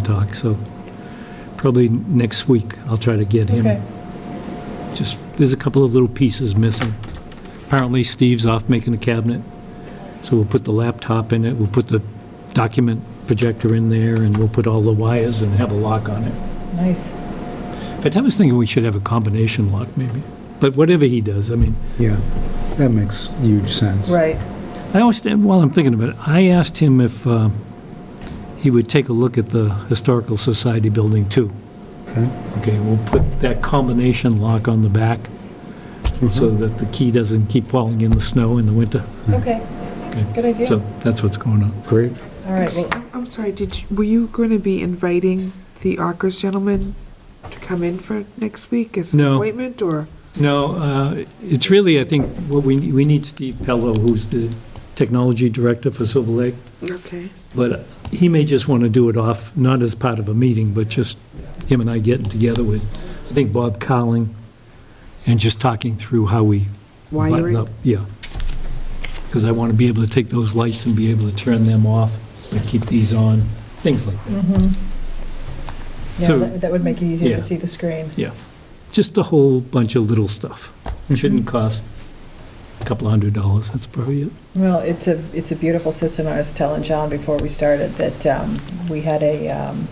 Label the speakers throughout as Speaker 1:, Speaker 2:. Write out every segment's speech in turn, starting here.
Speaker 1: talk, so probably next week I'll try to get
Speaker 2: Okay.
Speaker 1: him. Just, there's a couple of little pieces missing. Apparently Steve's off making a cabinet, so we'll put the laptop in it, we'll put the document projector in there, and we'll put all the wires and have a lock on it.
Speaker 2: Nice.
Speaker 1: But I was thinking we should have a combination lock, maybe. But whatever he does, I mean,
Speaker 3: Yeah, that makes huge sense.
Speaker 2: Right.
Speaker 1: I always, while I'm thinking about it, I asked him if uh, he would take a look at the Historical Society building, too.
Speaker 3: Okay.
Speaker 1: Okay, we'll put that combination lock on the back so that the key doesn't keep falling in the snow in the winter.
Speaker 2: Okay.
Speaker 1: Okay.
Speaker 2: Good idea.
Speaker 1: So that's what's going on.
Speaker 3: Great.
Speaker 2: All right.
Speaker 4: Ex-
Speaker 2: Well,
Speaker 4: I'm- I'm sorry, did, you- were you going to be inviting the Arcos gentleman to come in for next week as an
Speaker 1: No.
Speaker 4: appointment, or?
Speaker 1: No, uh, it's really, I think, what we, we need Steve Pello, who's the technology director for Silver Lake,
Speaker 4: Okay,
Speaker 1: but he may just want to do it off, not as part of a meeting, but just him and I getting together with, I think, Bob Cowling, and just talking through how we button
Speaker 4: wiring,
Speaker 1: up, Yeah. Because I want to be able to take those lights and be able to turn them off, like keep these on, things like that.
Speaker 2: mhm. mm-hmm. Yeah,
Speaker 1: So-
Speaker 2: that that would make it easier
Speaker 1: Yeah.
Speaker 2: to see the screen.
Speaker 1: Just a whole bunch of little stuff. It Shouldn't cost a couple hundred dollars, that's probably it.
Speaker 2: Well, it's a, it's a beautiful system. I was telling John before we started that um, we had a, um,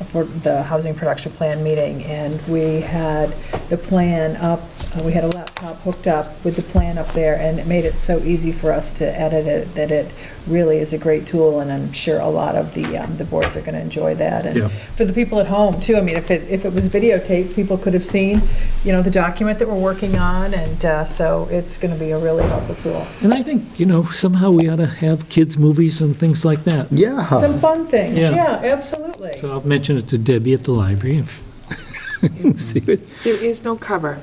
Speaker 2: a for- the Housing Production Plan meeting, and we had the plan up, uh, we had a laptop hooked up with the plan up there, and it made it so easy for us to edit it, that it really is a great tool, and I'm sure a lot of the, um, the boards are going to enjoy that. And
Speaker 1: Yeah.
Speaker 2: for the people at home, too, I mean, if it, if it was videotaped, people could have seen, you know, the document that we're working on, and uh, so it's going to be a really helpful tool.
Speaker 1: And I think, you know, somehow we ought to have kids' movies and things like that.
Speaker 2: Some
Speaker 3: Yeah.
Speaker 2: fun things,
Speaker 1: Yeah.
Speaker 2: yeah, absolutely.
Speaker 1: So I'll mention it to Debbie at the library. if- See what-
Speaker 4: there is no cover.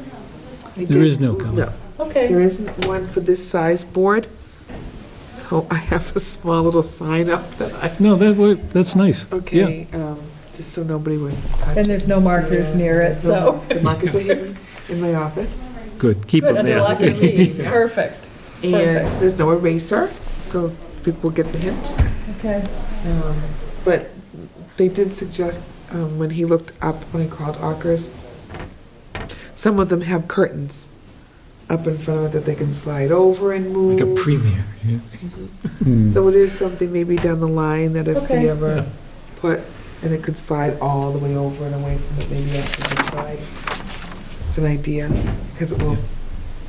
Speaker 4: I
Speaker 1: There is
Speaker 4: did-
Speaker 1: no cover.
Speaker 4: There
Speaker 2: Okay,
Speaker 4: isn't one for this size board, so I have a small little sign up that I,
Speaker 1: No, that, wa- that's nice.
Speaker 4: okay, um, just so nobody would touch
Speaker 2: and there's no markers
Speaker 4: Yeah,
Speaker 2: near it,
Speaker 4: there's no
Speaker 2: so.
Speaker 4: mark- The markers are hidden in my office,
Speaker 1: Yeah, good, keep
Speaker 2: Good,
Speaker 1: them
Speaker 2: under
Speaker 1: there.
Speaker 2: lock and key, perfect,
Speaker 4: and
Speaker 2: Perfect.
Speaker 4: there's no eraser, so people get the hint.
Speaker 2: okay.
Speaker 4: Um, But they did suggest, um, when he looked up, when I called Akers, some of them have curtains up in front of it that they can slide over and move.
Speaker 1: Like a premiere, yeah.
Speaker 3: Hmm.
Speaker 4: So it is something maybe down the line that if
Speaker 2: Okay.
Speaker 4: we ever put, and it could slide all the way over and away from it, maybe after the slide. It's an idea, because it will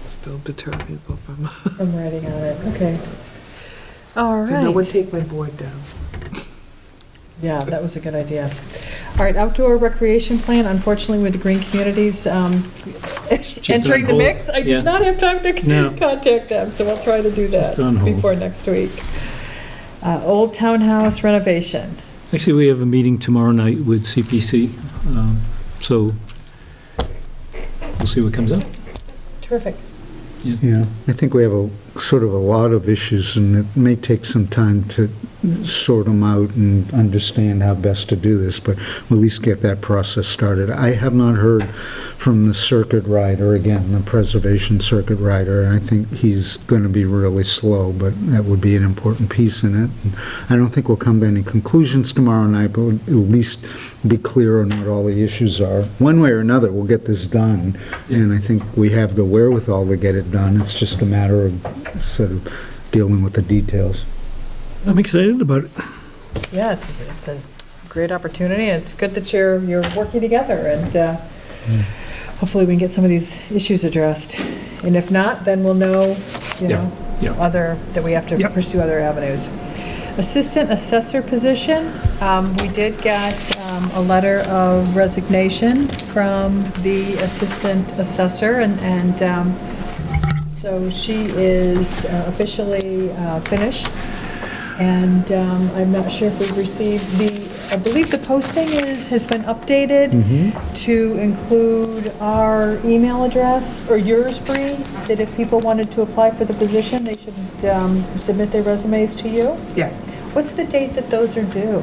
Speaker 4: still deter people from,
Speaker 2: I'm writing on it, okay. All
Speaker 4: so no one
Speaker 2: right,
Speaker 4: take my board down.
Speaker 2: yeah, that was a good idea. All right, outdoor recreation plan, unfortunately with the Green Communities um,
Speaker 1: just
Speaker 2: entering the
Speaker 1: on hold.
Speaker 2: mix, I
Speaker 1: Yeah.
Speaker 2: did not have time
Speaker 1: No.
Speaker 2: to contact them, so I'll try to do that
Speaker 1: Just on hold.
Speaker 2: before next week. Uh, Old Townhouse renovation,
Speaker 1: Actually, we have a meeting tomorrow night with CPC, um, so we'll see what comes up.
Speaker 2: terrific.
Speaker 3: Yeah, I think we have a, sort of a lot of issues, and it may take some time to sort them out and understand how best to do this, but we'll at least get that process started. I have not heard from the circuit rider, again, the preservation circuit rider, and I think he's going to be really slow, but that would be an important piece in it. And I don't think we'll come to any conclusions tomorrow night, but we'll at least be clear on what all the issues are. One way or another, we'll get this done, and I think we have the wherewithal to get it done. It's just a matter of sort of dealing with the details.
Speaker 1: I'm excited about it.
Speaker 2: Yeah, it's, it's a great opportunity, and it's good that you're, you're working together, and uh, hopefully we can get some of these issues addressed. And if not, then we'll know,
Speaker 1: Yeah,
Speaker 2: you know,
Speaker 1: yeah.
Speaker 2: other, that we have to
Speaker 1: Yeah.
Speaker 2: pursue other avenues. Assistant assessor position, um, we did get um, a letter of resignation from the assistant assessor, and, and um, so she is uh, officially uh, finished, and um, I'm not sure if we've received the, I believe the posting is, has been updated
Speaker 3: Mm-hmm.
Speaker 2: to include our email address, or yours, Bree, that if people wanted to apply for the position, they should um, submit their resumes to you.
Speaker 4: Yes.
Speaker 2: What's the date that those are due?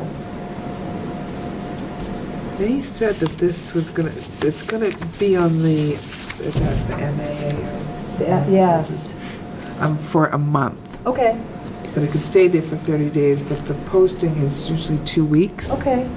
Speaker 4: They said that this was gonna, it's gonna be on the, it has the MAA.
Speaker 2: Yeah,
Speaker 4: or-
Speaker 2: yes.
Speaker 4: Um, for a month,
Speaker 2: Okay,
Speaker 4: but it could stay there for 30 days, but the posting is usually two weeks.
Speaker 2: okay,